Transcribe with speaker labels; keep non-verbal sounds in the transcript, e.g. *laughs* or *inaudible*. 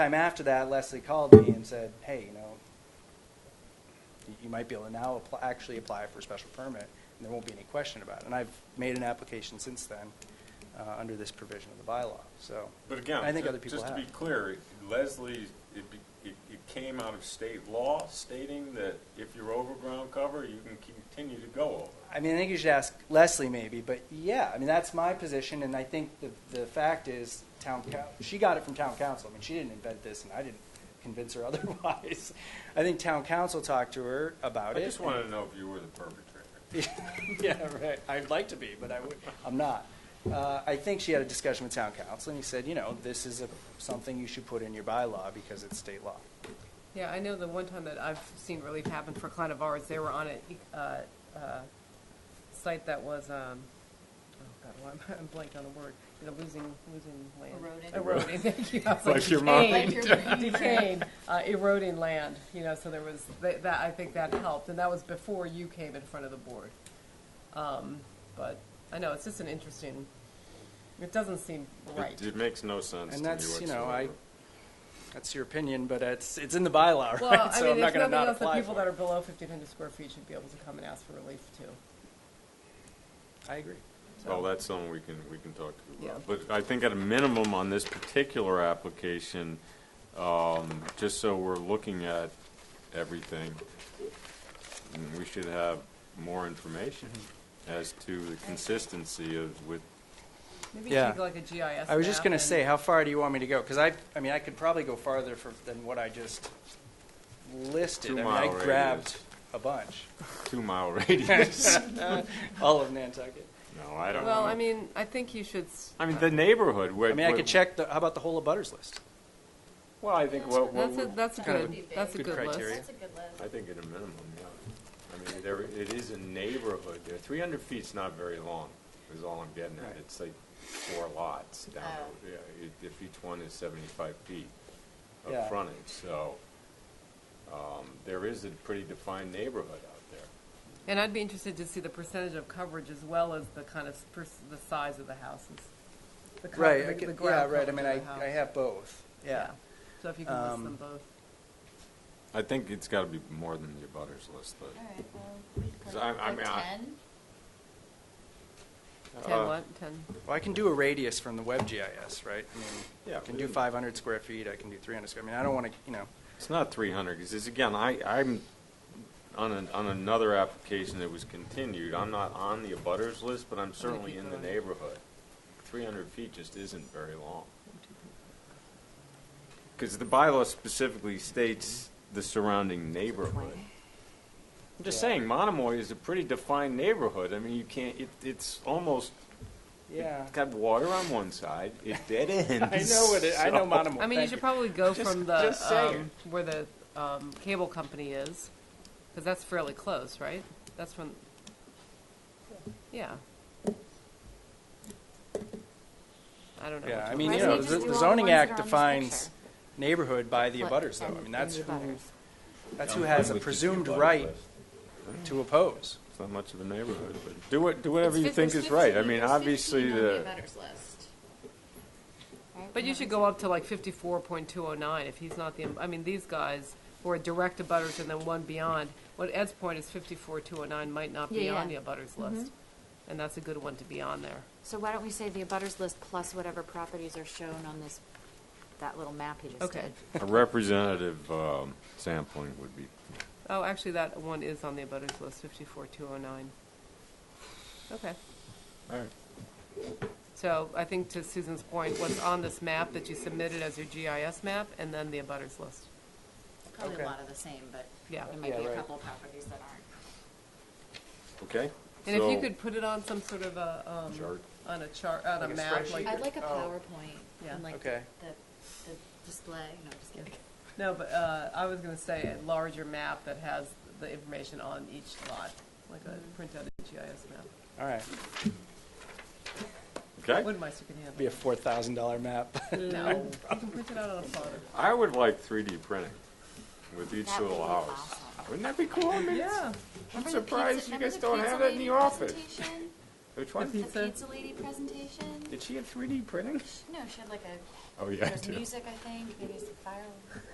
Speaker 1: Time after that, Leslie called me and said, hey, you know, you- you might be able to now apply, actually apply for a special permit, and there won't be any question about it. And I've made an application since then, uh, under this provision of the bylaw, so.
Speaker 2: But again,
Speaker 1: I think
Speaker 2: ju-
Speaker 1: other people
Speaker 2: just to
Speaker 1: have.
Speaker 2: be clear, Leslie, it, be- it, it came out of state law stating that if you're over ground cover, you can continue to go over.
Speaker 1: I mean, I think you should ask Leslie maybe, but yeah, I mean, that's my position, and I think the, the fact is, town, coun- she got it from town council. I mean, she didn't invent this, and I didn't convince her *laughs* otherwise. I think town council talked to her about
Speaker 2: I
Speaker 1: it.
Speaker 2: just wanted to know if you were the perpetrator.
Speaker 1: *laughs* Yeah, right. I'd like to be, but I would, I'm not. Uh, I think she had a discussion with town council, and he said, you know, this is a, something you should put in your bylaw because it's state law.
Speaker 3: Yeah, I know the one time that I've seen relief happen for a client of ours, they were on a, uh, uh, site that was, um, oh God, why am I- I'm blanking on the word, you know, losing, losing land.
Speaker 4: Eroded.
Speaker 3: Eroded, thank you. I
Speaker 2: *laughs*
Speaker 3: was
Speaker 2: Like your
Speaker 4: Like
Speaker 3: decaying,
Speaker 4: your brain.
Speaker 3: Decaying, uh, eroding land, you know, so there was, that, that- I think that helped, and that was before you came in front of the board. Um, but, I know, it's just an interesting, it doesn't seem right.
Speaker 5: It, it makes no sense
Speaker 1: And
Speaker 5: to me
Speaker 1: that's, you know, I,
Speaker 5: whatsoever.
Speaker 1: that's your opinion, but it's, it's in the bylaw, *laughs*
Speaker 3: Well,
Speaker 1: right?
Speaker 3: I
Speaker 1: So
Speaker 3: mean,
Speaker 1: I'm not
Speaker 3: there's
Speaker 1: gonna
Speaker 3: nothing
Speaker 1: not
Speaker 3: else that
Speaker 1: apply
Speaker 3: people that
Speaker 1: for
Speaker 3: are
Speaker 1: it.
Speaker 3: below fifteen hundred square feet should be able to come and ask for relief to.
Speaker 1: I agree.
Speaker 5: Well, that's something we can, we can talk to.
Speaker 3: Yeah.
Speaker 5: about. But I think at a minimum on this particular application, um, just so we're looking at everything, mm, we should have more information
Speaker 1: Mm-hmm.
Speaker 5: as to the consistency of, with,
Speaker 3: Maybe
Speaker 1: Yeah.
Speaker 3: take like a GIS.
Speaker 1: I was just
Speaker 3: map
Speaker 1: gonna
Speaker 3: and-
Speaker 1: say, how far do you want me to go? Because I, I mean, I could probably go farther for, than what I just listed. I mean, I
Speaker 5: Two-mile radius.
Speaker 1: grabbed a bunch,
Speaker 5: two-mile *laughs* radius.
Speaker 1: all of Nantucket.
Speaker 5: No, I don't know.
Speaker 3: Well, I mean, I think you should. s-
Speaker 5: I mean, the neighborhood, where.
Speaker 1: I mean, I
Speaker 5: where-
Speaker 1: could check the, how about the whole of Butters list?
Speaker 5: Well, I think what, what,
Speaker 3: That's a,
Speaker 5: we-
Speaker 3: that's a
Speaker 1: Kind of
Speaker 3: good,
Speaker 4: a
Speaker 3: that's a
Speaker 1: good
Speaker 3: good
Speaker 1: criteria.
Speaker 3: list.
Speaker 4: *laughs* That's a good list.
Speaker 5: I think at a minimum, yeah. I mean, there, it is a neighborhood there. Three hundred feet's not very long, is all I'm getting at.
Speaker 1: Right.
Speaker 5: It's like four lots down,
Speaker 4: Oh.
Speaker 5: there. yeah, if- if each one is seventy-five feet
Speaker 1: Yeah.
Speaker 5: of frontage, so, um, there is a pretty defined neighborhood out there.
Speaker 3: And I'd be interested to see the percentage of coverage as well as the kind of, s- pers- the size of the houses. The co-
Speaker 1: Right,
Speaker 3: the-
Speaker 1: I
Speaker 3: the
Speaker 1: could- yeah,
Speaker 3: ground
Speaker 1: right, I
Speaker 3: coverage
Speaker 1: mean,
Speaker 3: of
Speaker 1: I,
Speaker 3: the house.
Speaker 1: I have both, yeah.
Speaker 3: So if you can list
Speaker 1: Um,
Speaker 3: them both.
Speaker 5: I think it's gotta be more than the abutters list, but.
Speaker 4: All right, well, we could,
Speaker 5: So I- I
Speaker 4: for
Speaker 5: mean, I-
Speaker 4: ten,
Speaker 3: Ten
Speaker 5: Uh,
Speaker 3: what, ten?
Speaker 1: Well, I can do a radius from the web GIS, right? I mean,
Speaker 5: Yeah,
Speaker 1: I can do
Speaker 5: we-
Speaker 1: five hundred square feet, I can do three hundred square, I mean, I don't wanna, you know,
Speaker 5: It's not three hundred, because it's, again, I, I'm on an, on another application that was continued. I'm not on the abutters list, but I'm certainly in the
Speaker 3: people are-
Speaker 5: neighborhood. Three hundred feet just isn't very long. Because the bylaw specifically states the surrounding neighborhood. I'm just
Speaker 1: Yeah.
Speaker 5: saying, Monomoy is a pretty defined neighborhood. I mean, you can't, it, it's almost,
Speaker 1: yeah.
Speaker 5: it's got water on one side, it dead
Speaker 1: *laughs*
Speaker 5: ends.
Speaker 1: I know it, I know
Speaker 5: so-
Speaker 1: Monomoy,
Speaker 3: I mean, you
Speaker 1: thank
Speaker 3: should probably go
Speaker 5: Just-
Speaker 3: from the,
Speaker 5: just saying.
Speaker 3: um, where the, um, cable company is, because that's fairly close, right? That's from, yeah. I don't know.
Speaker 1: Yeah,
Speaker 3: which
Speaker 1: I
Speaker 3: one
Speaker 1: mean,
Speaker 4: Why
Speaker 1: you
Speaker 3: it
Speaker 4: don't
Speaker 1: know,
Speaker 4: we
Speaker 3: is.
Speaker 4: just
Speaker 1: the
Speaker 4: do
Speaker 1: the
Speaker 4: all the
Speaker 1: zoning
Speaker 4: ones
Speaker 1: act
Speaker 4: that are on this
Speaker 1: defines
Speaker 4: picture?
Speaker 1: neighborhood by the
Speaker 4: What,
Speaker 1: abutters, though,
Speaker 4: ten
Speaker 1: I mean, that's
Speaker 4: in the
Speaker 1: who,
Speaker 4: butters?
Speaker 1: that's who has a presumed right to oppose.
Speaker 5: It's not much of a neighborhood, but do what, do whatever
Speaker 4: It's
Speaker 5: you
Speaker 4: fif-
Speaker 5: think
Speaker 4: there's
Speaker 5: is right. I
Speaker 4: 15
Speaker 5: mean,
Speaker 4: there's
Speaker 5: obviously,
Speaker 4: 15 on
Speaker 5: the,
Speaker 4: abutters list. Right,
Speaker 3: But you should go up to like fifty-four point two oh nine if he's not the, I mean, these guys who are direct abutters and then one beyond. What Ed's point is fifty-four two oh nine might not be
Speaker 4: Yeah, Mm-hmm.
Speaker 3: on the
Speaker 4: yeah.
Speaker 3: abutters list, and that's a good one to be on there.
Speaker 6: So why don't we say the abutters list plus whatever properties are shown on this, that little map he just did?
Speaker 3: Okay.
Speaker 5: a representative um, sampling would be,
Speaker 3: Oh, actually, that one is on the abutters list, fifty-four, two oh nine. Okay,
Speaker 5: all right.
Speaker 3: so I think to Susan's point, what's on this map that you submitted as your GIS map, and then the abutters list.
Speaker 4: Probably
Speaker 1: Okay.
Speaker 4: a lot of the same, but
Speaker 3: Yeah.
Speaker 4: there might be
Speaker 1: Yeah,
Speaker 4: a
Speaker 1: right.
Speaker 4: couple of properties that aren't.
Speaker 5: Okay?
Speaker 3: And if you
Speaker 5: So-
Speaker 3: could put it on some sort of a, um,
Speaker 5: Chart.
Speaker 3: on a chart, on a
Speaker 1: Like a
Speaker 3: map,
Speaker 1: spreadsheet?
Speaker 3: like,
Speaker 4: I'd like a
Speaker 1: Oh.
Speaker 4: PowerPoint
Speaker 3: Yeah.
Speaker 4: and like the,
Speaker 1: Okay.
Speaker 4: the display, no, just kidding.
Speaker 3: no, but, uh, I was gonna say a larger map that has the information on each lot, like a printout of GIS map.
Speaker 1: All right,
Speaker 5: Okay?
Speaker 3: Wood mice you can
Speaker 1: be a
Speaker 3: handle.
Speaker 1: four thousand dollar map. *laughs*
Speaker 3: No, you can print it out on a plotter.
Speaker 5: I would like 3D printing with each
Speaker 4: That would
Speaker 5: little
Speaker 4: be
Speaker 5: house.
Speaker 4: awesome.
Speaker 5: Wouldn't that be cool? I mean, it's-
Speaker 3: Yeah,
Speaker 5: I'm
Speaker 4: Remember the
Speaker 5: surprised
Speaker 4: pizza-
Speaker 5: you
Speaker 4: remember
Speaker 5: guys don't
Speaker 4: pizza
Speaker 5: have that in
Speaker 4: lady
Speaker 5: the office.
Speaker 3: *laughs*
Speaker 4: presentation?
Speaker 5: Which one?
Speaker 4: The
Speaker 3: Pizza?
Speaker 4: pizza lady presentation?
Speaker 2: Did she have 3D printing?
Speaker 4: No, she had like a,
Speaker 5: Oh, yeah, I
Speaker 4: there's
Speaker 5: do.
Speaker 4: music, I think, maybe some fire